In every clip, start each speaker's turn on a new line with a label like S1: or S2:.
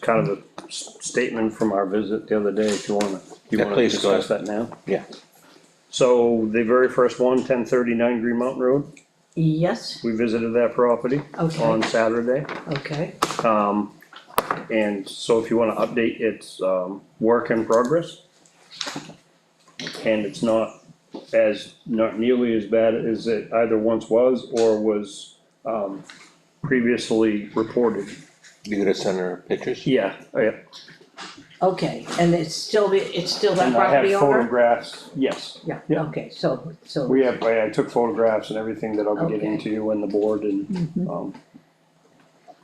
S1: kind of a s- statement from our visit the other day, if you wanna, you
S2: Yeah,
S1: wanna
S2: please, go
S1: discuss that now?
S2: Yeah,
S1: So the very first one, 1039 Green Mountain Road,
S3: Yes,
S1: we visited that property
S3: Okay.
S1: on Saturday.
S3: okay,
S1: Um, and so if you wanna update, it's, um, work in progress. And it's not as, not nearly as bad as it either once was or was, um, previously reported.
S2: you gonna send her pictures?
S1: Yeah, yeah,
S3: okay, and it's still, the it's still that
S1: and I
S3: property
S1: have
S3: owner?
S1: photographs, yes.
S3: Yeah,
S1: yeah.
S3: okay, so, so,
S1: We have, I I took photographs and everything that I'll be getting
S3: Okay.
S1: to
S3: Mm-hmm.
S1: you and the board and, um,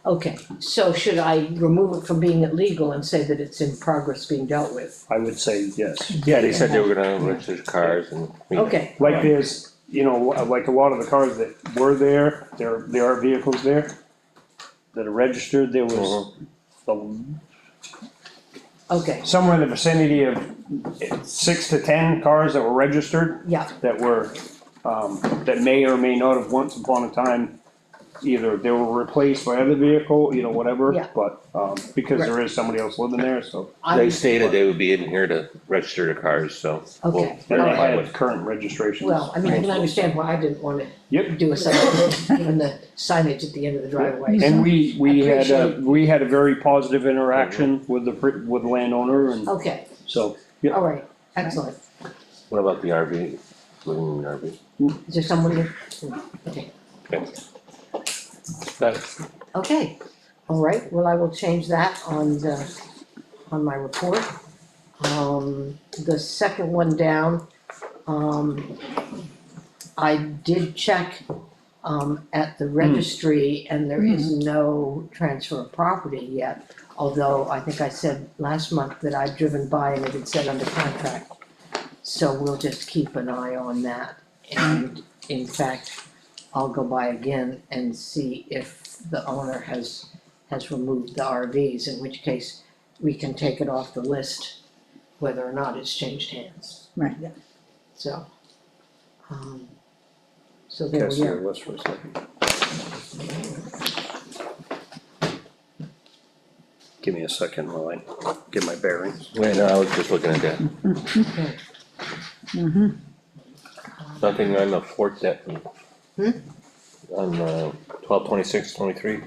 S3: okay, so should I remove it from being illegal and say that it's in progress being dealt with?
S1: I would say yes.
S2: Yeah, they said they were gonna register cars and. you know.
S3: Okay,
S1: Like there's, you know, uh, like a lot of the cars that were there, there, there are vehicles there that are registered, there was
S2: Mm-hmm.
S1: the-
S3: okay,
S1: somewhere in the vicinity of six to ten cars that were registered
S3: yeah,
S1: that were, um, that may or may not have once upon a time, either they were replaced by other vehicle, you know, whatever,
S3: Yeah.
S1: but, um, because there is somebody else living there, so.
S3: Oh, I,
S2: They stated they would be in here to register the cars, so. we'll
S3: Okay.
S1: And I
S2: verify
S1: had
S2: what-
S1: current registrations.
S3: well, I mean, I can understand why I didn't wanna
S1: Yep.
S3: do a sign, even the signage at the end of the driveway.
S1: And we, we had, a
S3: Appreciate-
S1: we had a very positive interaction with the, pr- with the landowner and
S3: Okay,
S1: so,
S3: all right, excellent,
S2: What about the RV, living in an RV?
S3: is there someone here? Okay.
S2: That's,
S3: Okay, all right, well, I will change that on the, on my report. Um, the second one down, um, I did check, um, at the registry and there is no transfer of property yet. Although I think I said last month that I'd driven by and it had said under contract. So we'll just keep an eye on that. And in fact, I'll go by again and see if the owner has, has removed the RVs, in which case we can take it off the list, whether or not it's changed hands,
S4: Right,
S3: so. um, So there
S1: that's
S3: we
S1: your
S3: are.
S1: list for a second. Give me a second while I get my bearings.
S2: wait, no, I was just looking at that,
S3: Okay.
S4: Mm-hmm,
S2: nothing on the fourth that.
S3: Hmm?
S2: On, uh, twelve twenty-six, twenty-three,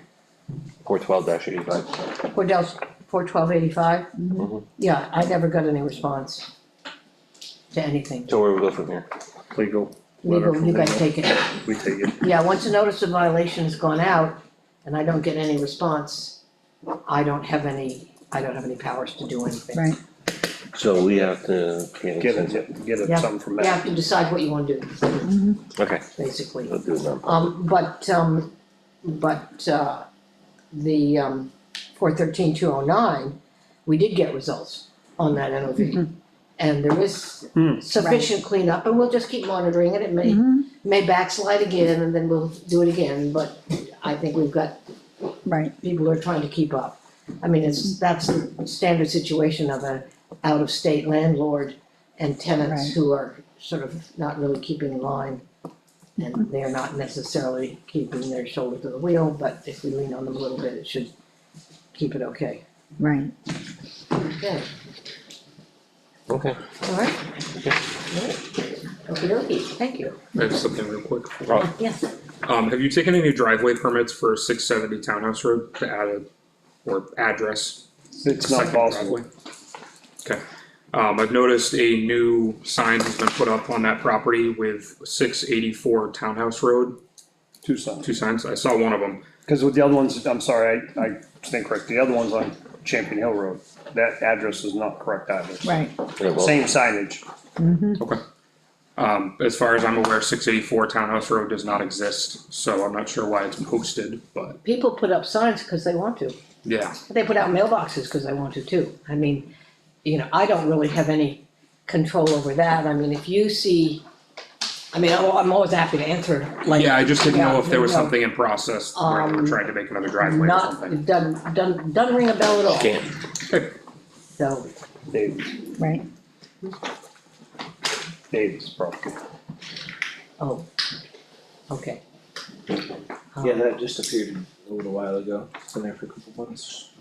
S2: four twelve dash eighty-five,
S3: Four del, four twelve eighty-five?
S1: Mm-hmm.
S2: Mhm.
S3: Yeah, I never got any response to anything.
S2: so where we go from here?
S1: Legal letter
S3: Legal,
S1: from
S3: you guys
S1: legal.
S3: take it.
S1: We take it.
S3: Yeah, once a notice of violation's gone out and I don't get any response, I don't have any, I don't have any powers to do anything.
S4: right.
S2: So we have to.
S1: Get it, get it
S3: Yeah.
S1: some from
S3: You have
S1: that.
S3: to decide what you wanna do,
S2: Okay,
S3: basically.
S2: we'll do it now.
S3: Um, but, um, but, uh, the, um, four thirteen two oh nine, we did get results on that NOV. And there is
S1: Hmm.
S3: sufficient cleanup, and we'll just keep monitoring it, it may,
S4: Mhm.
S3: may backslide again, and then we'll do it again, but I think we've got
S4: Right,
S3: people are trying to keep up. I mean, it's, that's the standard situation of a out-of-state landlord and tenants
S4: Right.
S3: who are sort of not really keeping in line. And they're not necessarily keeping their shoulder to the wheel, but if we lean on them a little bit, it should keep it okay.
S4: right.
S3: Okay,
S2: Okay.
S3: all right? Okey dokey, thank you.
S5: I have something real quick.
S2: Oh.
S3: Yes.
S5: Um, have you taken any driveway permits for six seventy Townhouse Road to add a, or address?
S1: It's not
S5: second
S1: possible.
S5: driveway? Okay, um, I've noticed a new sign has been put up on that property with six eighty-four Townhouse Road,
S1: Two sons.
S5: two signs, I saw one of them.
S1: Cause with the other ones, I'm sorry, I, I stand correct. The other one's on Champion Hill Road. That address is not correct either.
S4: Right,
S2: Yeah, well,
S1: Same signage.
S5: Okay. Um, as far as I'm aware, six eighty-four Townhouse Road does not exist, so I'm not sure why it's posted, but
S3: People put up signs because they want to.
S5: yeah,
S3: They put out mailboxes because they want to too. I mean, you know, I don't really have any control over that. I mean, if you see, I mean, I'm, I'm always happy to answer, like,
S5: yeah, I just didn't know if there was
S3: Yeah, no.
S5: something in process where they
S3: Um,
S5: were trying to make another driveway or
S3: not,
S5: something.
S3: doesn't, doesn't, doesn't ring a bell at all,
S2: Can't,
S3: so.
S1: Davis,
S4: right.
S1: Davis property.
S3: Oh, okay. Um,
S6: Yeah, that just appeared a little while ago, it's been there for a couple months.